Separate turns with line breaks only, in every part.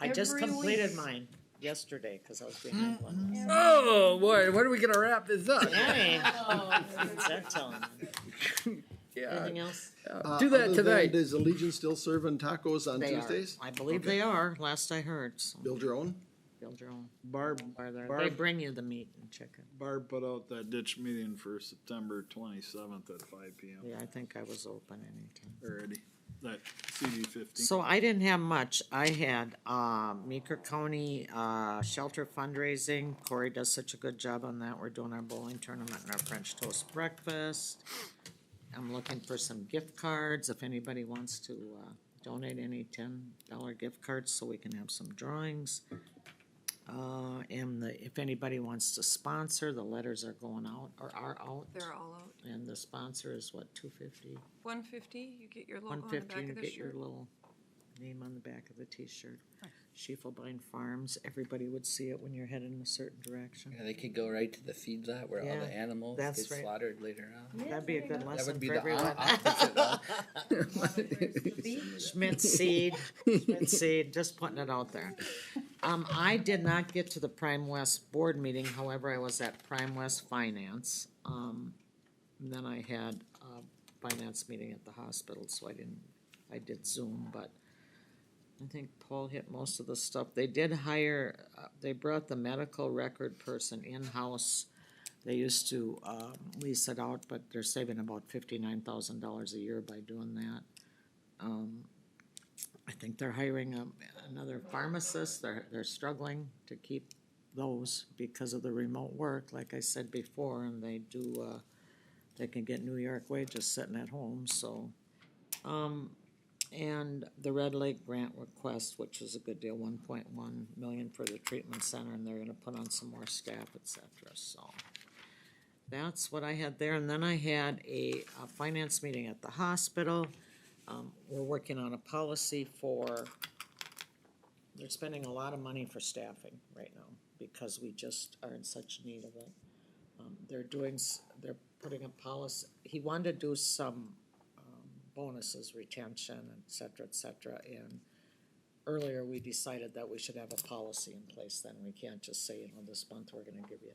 I just
Every
completed
week.
mine yesterday, cause I was behind one. last-
Oh, boy, when are we gonna wrap this up?
Hey,
Oh.
what's that telling me?
Yeah,
Anything else?
Uh,
do that
other than,
tonight.
Does the Legion still serving tacos on
They are.
Tuesdays?
I believe they are, last I heard, so
Build your own?
build your own
Barb,
bar there. They
Barb,
bring you the meat and chicken.
Barb put out that ditch meeting for September twenty-seventh at five P M
Yeah, I think I was open anytime.
already, that CD fifteen.
So I didn't have much. I had, uh, Meeker County, uh, shelter fundraising. Corey does such a good job on that. We're doing our bowling tournament and our French toast breakfast. I'm looking for some gift cards if anybody wants to, uh, donate any ten dollar gift cards so we can have some drawings. Uh, and the, if anybody wants to sponsor, the letters are going out or are out.
They're all out.
And the sponsor is what, two fifty?
One fifty, you get your
One
logo on the
fifty,
back
you
of the
get your
shirt.
little name on the back of the T-shirt. Schiefelbein Farms, everybody would see it when you're heading in a certain direction.
Yeah, they could go right to the feed lot where all
Yeah,
the animals
that's
get
right.
slaughtered later on.
That'd be a good
That
lesson
would be
for
the o-
everyone.
opposite of
Schmidt seed, Schmidt seed, just putting it out there. Um, I did not get to the Prime West board meeting, however, I was at Prime West Finance. Um, and then I had a finance meeting at the hospital, so I didn't, I did Zoom, but I think Paul hit most of the stuff. They did hire, uh, they brought the medical record person in-house. They used to, um, lease it out, but they're saving about fifty-nine thousand dollars a year by doing that. I think they're hiring a, another pharmacist, they're, they're struggling to keep those because of the remote work, like I said before, and they do, uh, they can get New York wages sitting at home, so. Um, and the Red Lake grant request, which is a good deal, one point one million for the treatment center, and they're gonna put on some more staff, et cetera, so. That's what I had there, and then I had a, a finance meeting at the hospital. Um, we're working on a policy for, they're spending a lot of money for staffing right now because we just are in such need of it. Um, they're doing, s- they're putting a policy, he wanted to do some, um, bonuses, retention, et cetera, et cetera, and earlier we decided that we should have a policy in place then, we can't just say, you know, this month we're gonna give you.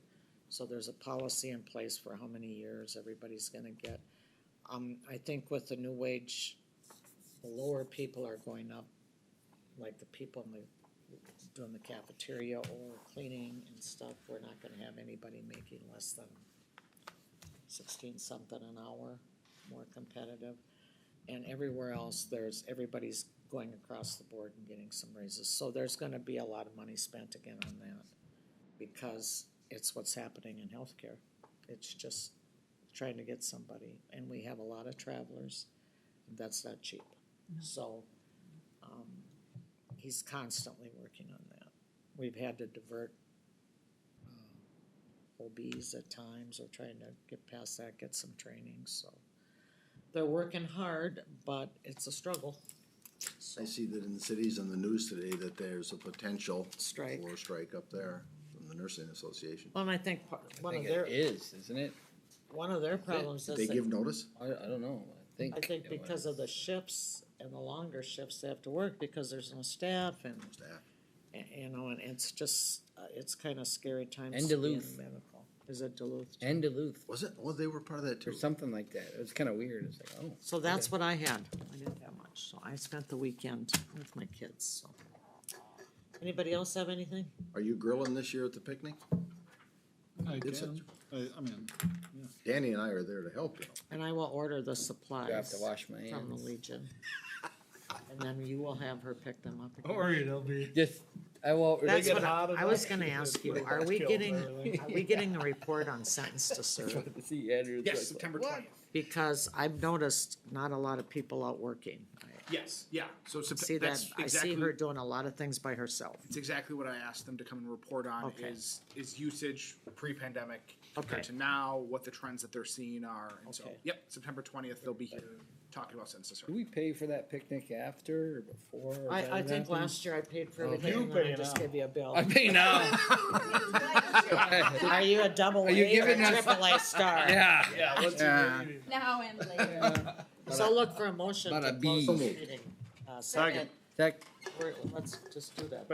So there's a policy in place for how many years everybody's gonna get. Um, I think with the new wage, the lower people are going up, like the people in the, doing the cafeteria or cleaning and stuff, we're not gonna have anybody making less than sixteen something an hour, more competitive. And everywhere else, there's, everybody's going across the board and getting some raises, so there's gonna be a lot of money spent again on that. Because it's what's happening in healthcare, it's just trying to get somebody, and we have a lot of travelers, that's not cheap. So, um, he's constantly working on that. We've had to divert um, OBs at times, or trying to get past that, get some training, so. They're working hard, but it's a struggle. So,
I see that in the cities on the news today that there's a potential
Strike.
for a strike up there from the nursing association.
Well, and I think part-
I
one of
think
their,
it is, isn't it?
one of their problems
Did
is
they
that-
give notice?
I, I don't know. I think.
I think
it
because of the shifts and the longer shifts they have to work, because there's no staff and
Staff.
And, you know, and it's just, uh, it's kind of scary times.
And
to be in
Duluth.
medical. Is it Duluth?
was- And Duluth
Was it? Well, they were part of that
or
too.
something like that. It was kind of weird. It's like, oh.
So that's what I had. I didn't have much. So I spent the weekend with my kids, so. Anybody else have anything?
Are you grilling this year at the picnic?
I
It's
can, I, I mean,
Danny and I are there to help you.
And I will order the supplies.
I have to wash my
From the
hands.
Legion. And then you will have her pick them up. again.
or it'll be.
Just I won't.
That's
really-
what I,
hot
I was
enough,
gonna
it's
ask you,
like
are we
killed
getting,
everything.
are we getting a report on sentence to serve?
to see Andrew's
Yes,
like,
September twentieth.
Because I've noticed not a lot of people out working. I
Yes, yeah. So
See
September.
that,
That's
I see her
exactly.
doing a lot of things by herself.
It's exactly what I asked them to come and report on
Okay.
is, is usage pre-pandemic
Okay.
compared to now, what the trends that they're seeing are. And so,
Okay.
yep, September twentieth, they'll be here talking about census. survey.
Do we pay for that picnic after or before? or
I,
does
I
that
think
happen?
last year I paid for
Okay.
everything,
You
and then I
pay
just
now.
gave you a bill.
I pay now.
Are you a double
you
A or a
giving us-
triple A star?
yeah.
Yeah, what's
Yeah.
your-
Now and later.
So look for a motion
But
to
a
close the
B.
meeting. Uh, second,
That
We're- let's just do that.